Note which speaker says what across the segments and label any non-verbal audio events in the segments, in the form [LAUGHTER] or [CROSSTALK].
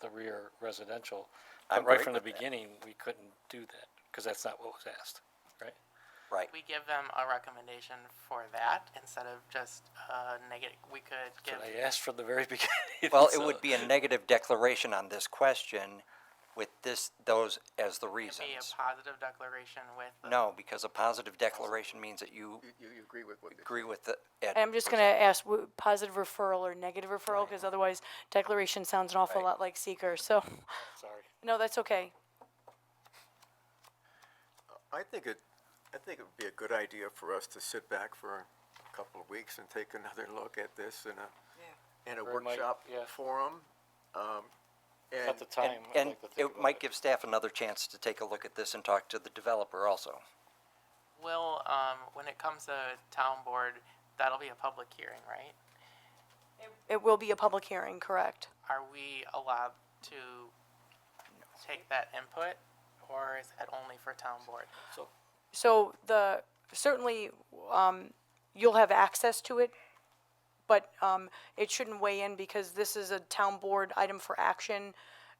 Speaker 1: the rear residential.
Speaker 2: I'm
Speaker 1: But right
Speaker 2: great
Speaker 1: from the
Speaker 2: with that.
Speaker 1: beginning, we couldn't do that, because that's not what was asked, right?
Speaker 2: Right.
Speaker 3: We give them a recommendation for that instead of just a negative, we could give,
Speaker 1: But I asked from the very [LAUGHS] beginning.
Speaker 2: Well, it
Speaker 1: so-
Speaker 2: would
Speaker 3: [LAUGHS]
Speaker 2: be a negative declaration on this question with this, those as the
Speaker 3: it'd be a
Speaker 2: reasons.
Speaker 3: positive declaration with. the-
Speaker 2: No, because a positive declaration means that you
Speaker 4: You, you agree with what they
Speaker 2: agree with the. ad-
Speaker 5: I'm just gonna ask, w- positive referral or negative referral, because otherwise declaration sounds an awful
Speaker 2: Right.
Speaker 5: lot like seeker, so,
Speaker 1: Sorry.
Speaker 5: no, that's okay.
Speaker 4: I think it, I think it would be a good idea for us to sit back for a couple of weeks and take another look at this in a, in a
Speaker 1: Or it might-
Speaker 4: workshop
Speaker 1: yeah.
Speaker 4: forum. um,
Speaker 1: At
Speaker 4: And,
Speaker 1: the
Speaker 2: And,
Speaker 1: time, I'd
Speaker 2: and
Speaker 1: like to think
Speaker 2: it
Speaker 1: about
Speaker 2: might give staff another chance to take a look at this and talk to the developer also.
Speaker 3: Will, um, when it comes to town board, that'll be a public hearing, right?
Speaker 5: It will be a public hearing, correct?
Speaker 3: Are we allowed to take that input or is it only for town board?
Speaker 5: So the, certainly, um, you'll have access to it, but, um, it shouldn't weigh in because this is a town board item for action.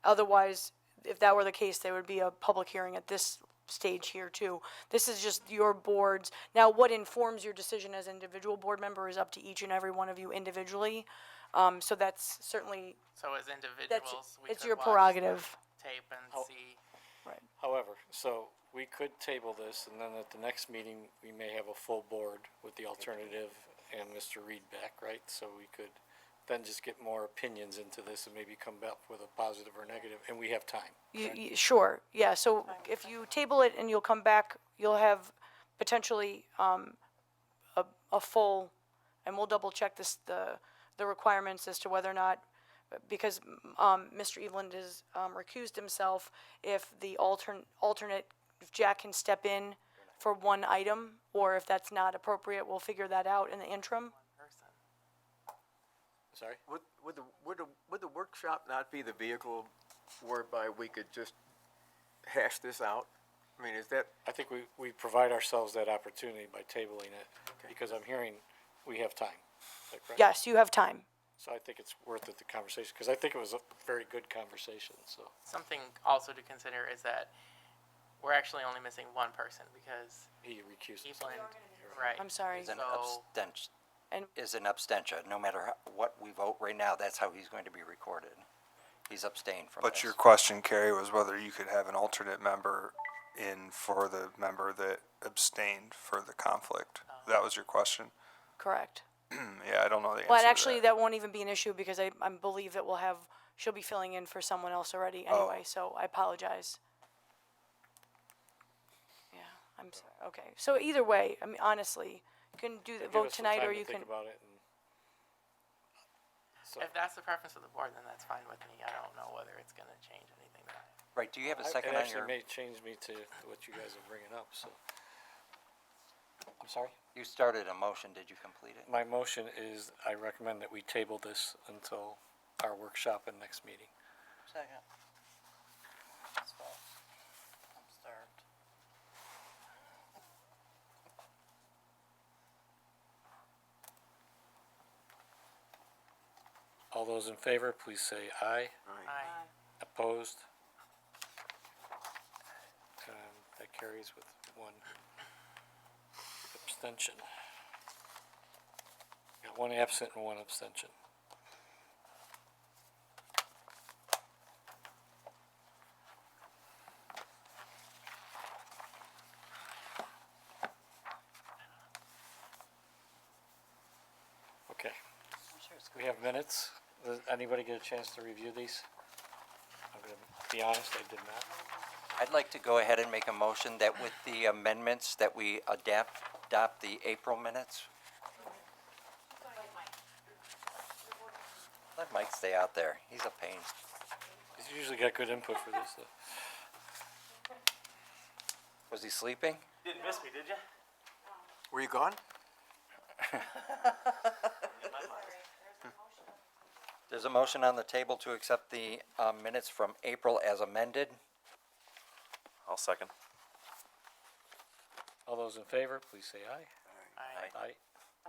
Speaker 5: Otherwise, if that were the case, there would be a public hearing at this stage here too. This is just your boards. Now, what informs your decision as individual board member is up to each and every one of you individually. Um, so that's certainly,
Speaker 3: So as
Speaker 5: that's,
Speaker 3: individuals, we
Speaker 5: it's
Speaker 3: could
Speaker 5: your
Speaker 3: watch
Speaker 5: prerogative.
Speaker 3: Tape and
Speaker 1: How-
Speaker 3: see,
Speaker 5: Right.
Speaker 1: However, so we could table this and then at the next meeting, we may have a full board with the alternative and Mr. Reed back, right? So we could then just get more opinions into this and maybe come back with a positive or negative, and we have time.
Speaker 5: You, you, sure, yeah, so if you table it and you'll come back, you'll have potentially, um, a, a full, and we'll double check this, the, the requirements as to whether or not, because, um, Mr. Eveland has, um, recused himself, if the altern, alternate, if Jack can step in for one item, or if that's not appropriate, we'll figure that out in the interim.
Speaker 1: Sorry?
Speaker 4: would, would the, would the, would the workshop not be the vehicle whereby we could just hash this out? I mean, is that,
Speaker 1: I think we, we provide ourselves that opportunity by tabling it, because I'm hearing we have time. Is that correct?
Speaker 5: Yes, you have time.
Speaker 1: So I think it's worth it, the conversation, because I think it was a very good conversation, so.
Speaker 3: something also to consider is that we're actually only missing one person because
Speaker 1: He recused himself.
Speaker 3: Evelyn, right?
Speaker 5: I'm sorry.
Speaker 2: Is an
Speaker 3: So-
Speaker 2: abstention,
Speaker 5: And-
Speaker 2: is an abstention, no matter how- what we vote right now, that's how he's going to be recorded. He's abstained from this.
Speaker 6: But your question, Carrie, was whether you could have an alternate member in for the member that abstained for the conflict. That was your question. Hmm,
Speaker 5: Correct.
Speaker 6: Yeah, I don't know the answer.
Speaker 5: But
Speaker 6: to
Speaker 5: actually, that won't even be an issue because I, I believe that we'll have, she'll be filling in for someone else already
Speaker 1: Oh.
Speaker 5: anyway, so I apologize. Yeah, I'm sorry, okay. So either way, I mean, honestly, you can do the
Speaker 1: Give
Speaker 5: vote
Speaker 1: us some
Speaker 5: tonight
Speaker 1: time
Speaker 5: or
Speaker 1: to
Speaker 5: you can,
Speaker 1: Think about it, and
Speaker 3: If that's the preference of the board, then that's fine with me. I don't know whether it's gonna change anything.
Speaker 2: Right, do you have a
Speaker 1: I-
Speaker 2: second
Speaker 1: it
Speaker 2: on
Speaker 1: actually
Speaker 2: your,
Speaker 1: may change me to what you guys are bringing up, so. I'm sorry?
Speaker 2: you started a motion, did you complete it?
Speaker 1: My motion is I recommend that we table this until our workshop and next meeting.
Speaker 7: Second. So, I'm starved.
Speaker 1: All those in favor, please say aye.
Speaker 3: Aye.
Speaker 1: Opposed? Um, that carries with one abstention. Got one absent and one abstention. Okay.
Speaker 7: I'm sure it's
Speaker 1: We have minutes. Does anybody get a chance to review these? I'm gonna be honest, I did not.
Speaker 2: I'd like to go ahead and make a motion that with the amendments that we adapt, adopt the April minutes. Let Mike stay out there, he's a pain.
Speaker 1: He's usually got good input for this, though.
Speaker 2: Was he sleeping?
Speaker 7: Didn't miss me, did you?
Speaker 4: were you gone?
Speaker 2: There's a motion on the table to accept the uh, minutes from April as amended.
Speaker 7: I'll second.
Speaker 1: All those in favor, please say aye.
Speaker 3: Aye.
Speaker 1: Aye.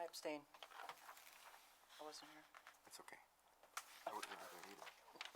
Speaker 7: I abstain. I wasn't here.